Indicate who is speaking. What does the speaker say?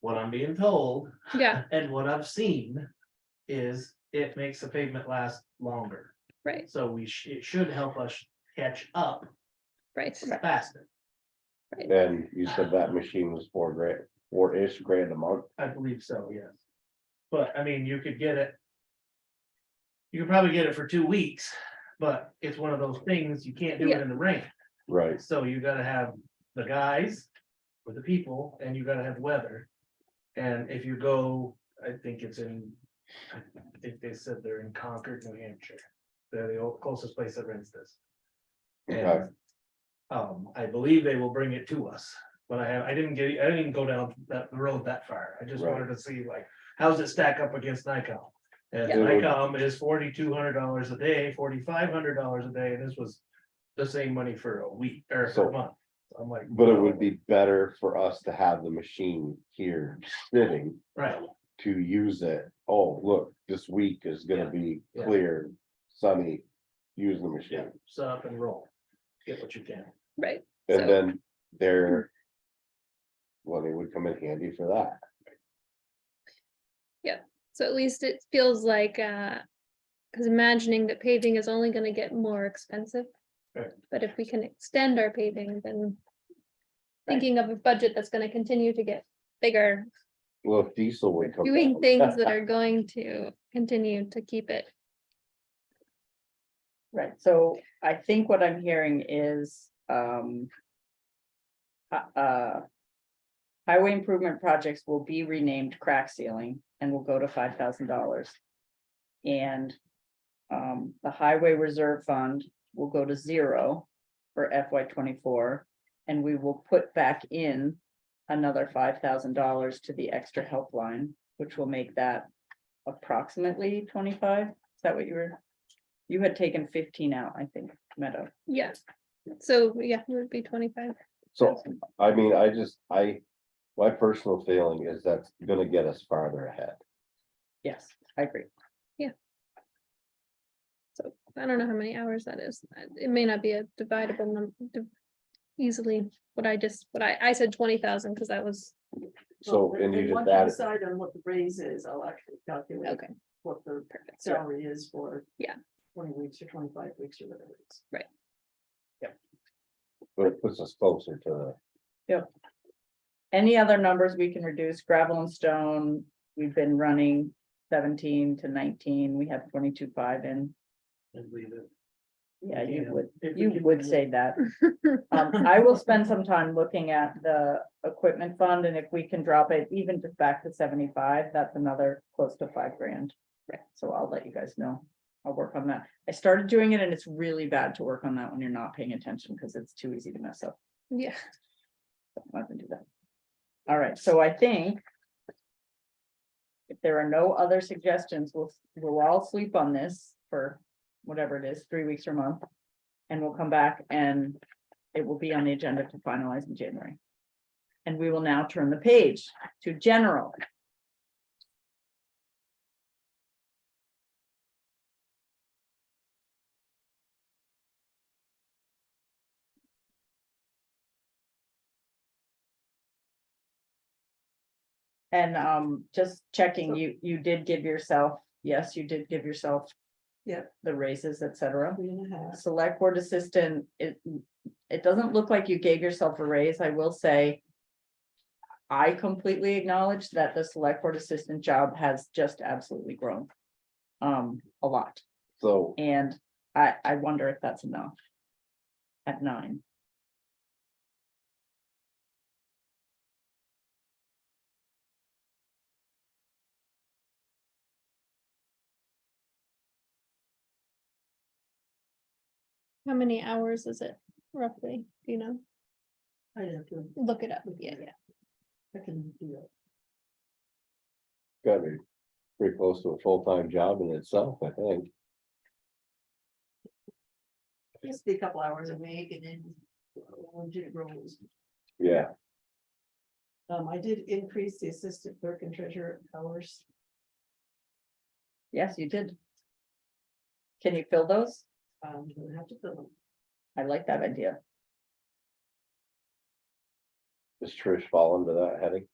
Speaker 1: what I'm being told
Speaker 2: Yeah,
Speaker 1: and what I've seen is it makes the pavement last longer.
Speaker 2: right,
Speaker 1: So we, sh- it should help us catch up
Speaker 2: right.
Speaker 1: faster.
Speaker 3: And you said that machine was four grand, four-ish grand a month.
Speaker 1: I believe so, yes. But I mean, you could get it. You could probably get it for two weeks, but it's one of those things you can't do it
Speaker 2: Yeah.
Speaker 1: in the rain.
Speaker 3: Right.
Speaker 1: So you gotta have the guys or the people and you gotta have weather. And if you go, I think it's in, I think they said they're in Concord, New Hampshire. They're the o- closest place that rents this.
Speaker 3: Okay.
Speaker 1: And, um, I believe they will bring it to us, but I have, I didn't get, I didn't even go down that road that far. I just
Speaker 3: Right.
Speaker 1: wanted to see like, how's it stack up against Nikon? And
Speaker 3: Yeah.
Speaker 1: Nikon is forty-two hundred dollars a day, forty-five hundred dollars a day, and this was the same money for a week or for
Speaker 3: So-
Speaker 1: a month. I'm like.
Speaker 3: But it would be better for us to have the machine here sitting
Speaker 1: Right,
Speaker 3: to use it. Oh, look, this week is gonna be
Speaker 1: Yeah.
Speaker 3: clear, sunny, use the
Speaker 1: yeah,
Speaker 3: machine.
Speaker 1: set up and roll. Get what you can.
Speaker 2: Right, So-
Speaker 3: And then there. Well, it would come in handy for that.
Speaker 2: so at least it feels like, uh, because imagining that paving is only gonna get more expensive.
Speaker 1: Right.
Speaker 2: But if we can extend our paving, then
Speaker 3: Right.
Speaker 2: thinking of a budget that's gonna continue to get bigger,
Speaker 3: Well, if diesel would come.
Speaker 2: doing
Speaker 3: down,
Speaker 2: things that are going to continue to keep it.
Speaker 4: Right, so I think what I'm hearing is, um. hi- Uh. Highway improvement projects will be renamed crack ceiling and will go to five thousand dollars. And. Um, the highway reserve fund will go to zero for FY twenty-four. And we will put back in another five thousand dollars to the extra helpline, which will make that approximately twenty-five. Is that what you were? You had taken fifteen out, I think, Meadow.
Speaker 2: Yeah, so yeah, it would be twenty-five.
Speaker 3: So, I mean, I just, I, my personal feeling is that's gonna get us farther ahead.
Speaker 4: Yes, I agree.
Speaker 2: So I don't know how many hours that is. Uh, It may not be a dividable number easily, what I just, what I, I said twenty thousand because that was,
Speaker 3: So,
Speaker 5: Well,
Speaker 3: and
Speaker 5: then
Speaker 3: you just
Speaker 5: once
Speaker 3: added,
Speaker 5: Decide on what the raise is, I'll actually calculate
Speaker 2: okay,
Speaker 5: what the
Speaker 2: perfect. So
Speaker 5: salary is for.
Speaker 2: Yeah.
Speaker 5: Twenty weeks or twenty-five weeks or whatever it is.
Speaker 3: but it puts us closer to the.
Speaker 4: Any other numbers we can reduce? Gravel and stone, we've been running seventeen to nineteen, we have twenty-two five in.
Speaker 1: And leave it.
Speaker 4: Yeah, you
Speaker 1: Yeah,
Speaker 4: would,
Speaker 1: if we
Speaker 4: you
Speaker 1: can
Speaker 4: would
Speaker 1: do
Speaker 4: say that. Um, I will spend some time looking at the equipment fund and if we can drop it even just back to seventy-five, that's another close to five grand. Right. So I'll let you guys know. I'll work on that. I started doing it and it's really bad to work on that when you're not paying attention because it's too easy to mess up.
Speaker 2: yeah,
Speaker 4: I'm not gonna do that. All right, so I think. If there are no other suggestions, we'll, we'll all sleep on this for whatever it is, three weeks or a month. And we'll come back and it will be on the agenda to finalize in January. And we will now turn the page to general. And um, just checking, you, you did give yourself, yes, you did give yourself.
Speaker 5: Yep.
Speaker 4: The raises, et cetera.
Speaker 5: Three and a half.
Speaker 4: Select board assistant, it, it doesn't look like you gave yourself a raise, I will say. I completely acknowledge that the select board assistant job has just absolutely grown. Um, a lot,
Speaker 3: So,
Speaker 4: and I, I wonder if that's enough. At nine.
Speaker 2: how many hours is it roughly, Do you know,
Speaker 5: I have to,
Speaker 2: look it up, yeah, yeah.
Speaker 5: I can do that.
Speaker 3: gotta be pretty close to a full-time job in itself, I think.
Speaker 5: Just be a couple hours a week and then. Legit roles.
Speaker 3: Yeah,
Speaker 5: Um, I did increase the assistant clerk and treasurer hours.
Speaker 4: Yes, you did. Can you fill those?
Speaker 5: Um, you don't have to fill them.
Speaker 4: I like that idea.
Speaker 3: does Trish fall under that heading?